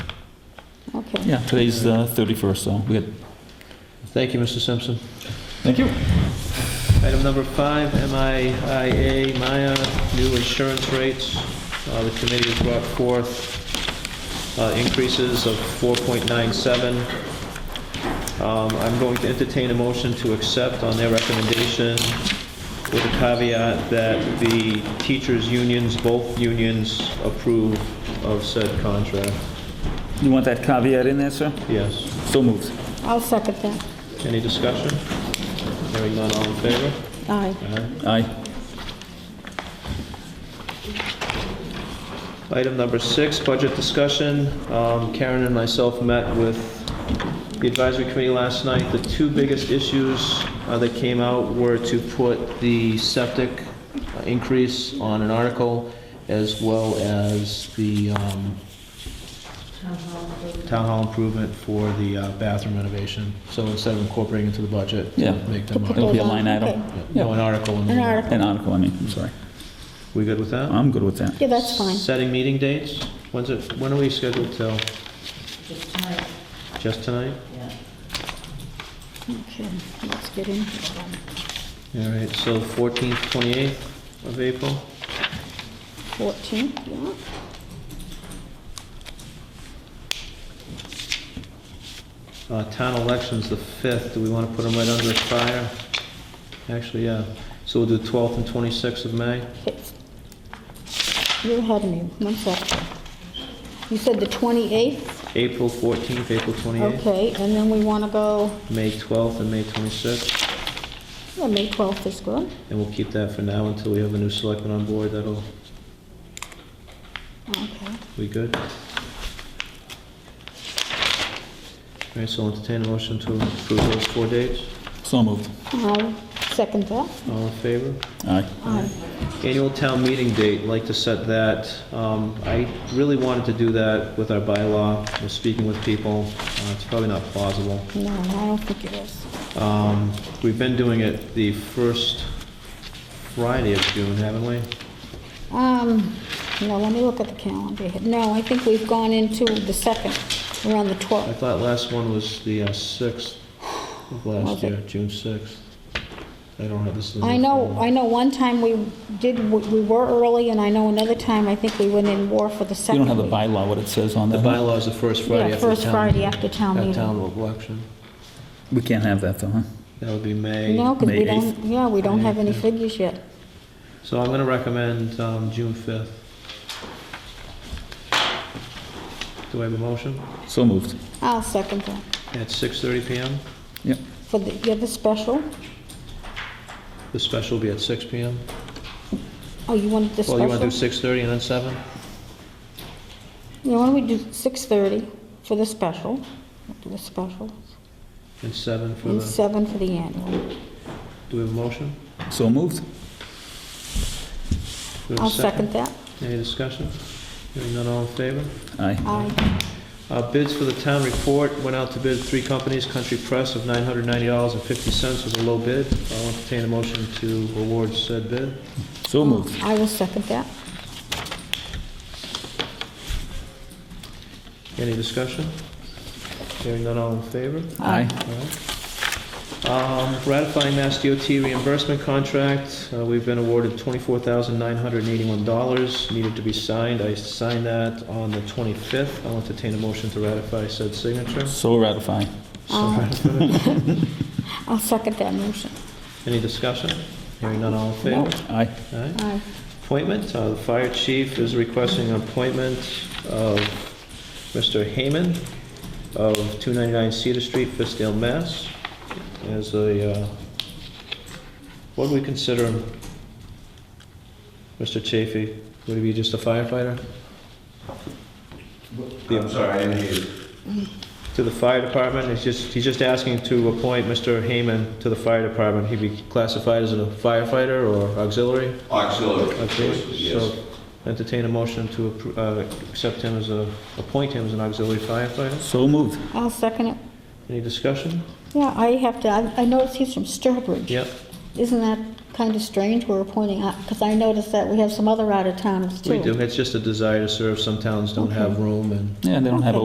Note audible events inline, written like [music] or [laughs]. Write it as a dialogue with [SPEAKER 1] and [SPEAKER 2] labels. [SPEAKER 1] Yeah, today's uh, 31st, so we had,
[SPEAKER 2] Thank you, Mr. Simpson.
[SPEAKER 1] thank you.
[SPEAKER 2] Item number five, MIIA, Maya, new insurance rates. Uh, The committee has brought forth uh, increases of 4.97. Um, I'm going to entertain a motion to accept on their recommendation with a caveat that the teachers' unions, both unions approve of said contract.
[SPEAKER 1] You want that caveat in there, sir?
[SPEAKER 2] Yes.
[SPEAKER 1] So moved.
[SPEAKER 3] I'll second that.
[SPEAKER 2] Any discussion? Hearing none, all in favor?
[SPEAKER 3] Aye.
[SPEAKER 2] Aye.
[SPEAKER 1] Aye.
[SPEAKER 2] Item number six, budget discussion. Um, Karen and myself met with the advisory committee last night. The two biggest issues uh, that came out were to put the septic uh, increase on an article as well as the um, town hall improvement for the uh, bathroom renovation. So instead of incorporating into the budget,
[SPEAKER 1] Yeah.
[SPEAKER 2] make
[SPEAKER 3] To
[SPEAKER 2] them
[SPEAKER 3] put
[SPEAKER 1] It'll
[SPEAKER 2] article.
[SPEAKER 1] be a line item.
[SPEAKER 3] Okay.
[SPEAKER 2] No, an article. in the-
[SPEAKER 3] An article.
[SPEAKER 1] An article, I mean, I'm sorry.
[SPEAKER 2] We good with that?
[SPEAKER 1] I'm good with that.
[SPEAKER 3] Yeah, that's fine.
[SPEAKER 2] Setting meeting dates? When's it, when are we scheduled till?
[SPEAKER 4] Just tonight,
[SPEAKER 2] Just tonight?
[SPEAKER 4] yeah.
[SPEAKER 3] Okay, let's get in.
[SPEAKER 2] All right, so 14th, 28th of April?
[SPEAKER 3] 14, yeah.
[SPEAKER 2] Uh, Town election's the 5th, do we want to put them right under fire? Actually, yeah, so we'll do 12th and 26th of May?
[SPEAKER 3] It's- You had me, one second. You said the 28th?
[SPEAKER 2] April 14th, April 28th,
[SPEAKER 3] Okay, and then we want to go,
[SPEAKER 2] May 12th and May 26th,
[SPEAKER 3] yeah, May 12th is good.
[SPEAKER 2] and we'll keep that for now until we have a new selectman on board, that'll
[SPEAKER 3] Okay.
[SPEAKER 2] be good. All right, so I'll entertain a motion to approve those four dates,
[SPEAKER 1] So moved.
[SPEAKER 3] I'll second that.
[SPEAKER 2] all in favor?
[SPEAKER 1] Aye.
[SPEAKER 3] Aye.
[SPEAKER 2] Annual town meeting date, like to set that. Um, I really wanted to do that with our bylaw, We're speaking with people. Uh, It's probably not plausible.
[SPEAKER 3] No, I don't think it is.
[SPEAKER 2] Um, We've been doing it the first Friday of June, haven't we?
[SPEAKER 3] Um, no, let me look at the calendar. here. No, I think we've gone into the second, we're on the
[SPEAKER 2] I
[SPEAKER 3] 12th.
[SPEAKER 2] thought last one was the uh, 6th of last
[SPEAKER 3] Was it?
[SPEAKER 2] year, June 6th. I don't have this. in the
[SPEAKER 3] I know,
[SPEAKER 2] folder.
[SPEAKER 3] I know one time we did, we were early, and I know another time, I think we went in war for the
[SPEAKER 1] You
[SPEAKER 3] second.
[SPEAKER 1] don't have the bylaw, what it says on
[SPEAKER 2] The
[SPEAKER 1] that?
[SPEAKER 2] bylaw is the first Friday
[SPEAKER 3] Yeah,
[SPEAKER 2] after town.
[SPEAKER 3] first Friday after town meeting.
[SPEAKER 2] At town election.
[SPEAKER 1] We can't have that, though, huh?
[SPEAKER 2] That would be May.
[SPEAKER 3] No, because we
[SPEAKER 1] May
[SPEAKER 3] don't, yeah, we don't have any
[SPEAKER 2] Yeah.
[SPEAKER 3] figures yet.
[SPEAKER 2] So I'm going to recommend um, June 5th. Do I have a motion?
[SPEAKER 1] So moved.
[SPEAKER 3] I'll Ah, second that.
[SPEAKER 2] At 6:30 PM?
[SPEAKER 1] Yep.
[SPEAKER 3] For the, yeah, the special,
[SPEAKER 2] The special will be at 6 PM?
[SPEAKER 3] oh, you wanted the
[SPEAKER 2] Well,
[SPEAKER 3] special?
[SPEAKER 2] you want to do 6:30 and then 7?
[SPEAKER 3] Yeah, why don't we do 6:30 for the special, We'll do the special,
[SPEAKER 2] And 7 for
[SPEAKER 3] and
[SPEAKER 2] the,
[SPEAKER 3] 7 for the annual.
[SPEAKER 2] do we have a motion?
[SPEAKER 1] So moved.
[SPEAKER 2] Do we have a
[SPEAKER 3] I'll second that.
[SPEAKER 2] Any discussion? Hearing none, all in favor?
[SPEAKER 1] Aye.
[SPEAKER 3] Aye.
[SPEAKER 2] Uh, Bids for the town report, went out to bid three companies, Country Press of $990.50 was a low bid. I'll entertain a motion to award said bid.
[SPEAKER 1] So moved.
[SPEAKER 3] I will second that.
[SPEAKER 2] Any discussion? Hearing none, all in favor?
[SPEAKER 1] Aye.
[SPEAKER 2] Um, Ratifying Mass DOT reimbursement contract, uh, we've been awarded $24,981, needed to be signed. I signed that on the 25th. I'll entertain a motion to ratify said signature.
[SPEAKER 1] So ratified.
[SPEAKER 2] So ratified.
[SPEAKER 3] I'll second that motion.
[SPEAKER 2] [laughs] Any discussion? Hearing none, all in favor?
[SPEAKER 1] Aye.
[SPEAKER 2] Aye.
[SPEAKER 3] Aye.
[SPEAKER 2] Appointment, uh, the fire chief is requesting an appointment of Mr. Hayman of 299 Cedar Street, Fiskdale, Mass. As a, uh, what do we consider him? Mr. Chafee, would he be just a firefighter?
[SPEAKER 5] I'm sorry, I didn't hear you.
[SPEAKER 2] To the fire department, he's just, he's just asking to appoint Mr. Hayman to the fire department. He'd be classified as a firefighter or auxiliary?
[SPEAKER 5] Auxiliary,
[SPEAKER 2] Auxiliary,
[SPEAKER 5] yes.
[SPEAKER 2] so entertain a motion to appro- uh, accept him as a, appoint him as an auxiliary firefighter.
[SPEAKER 1] So moved.
[SPEAKER 3] I'll second it.
[SPEAKER 2] Any discussion?
[SPEAKER 3] Yeah, I have to, I I noticed he's from Sturbridge.
[SPEAKER 2] Yep,
[SPEAKER 3] Isn't that kind of strange we're appointing, because I noticed that we have some other out-of-towners too.
[SPEAKER 2] we do. It's just a desire to serve. Some towns don't have room and
[SPEAKER 1] Yeah, they don't have a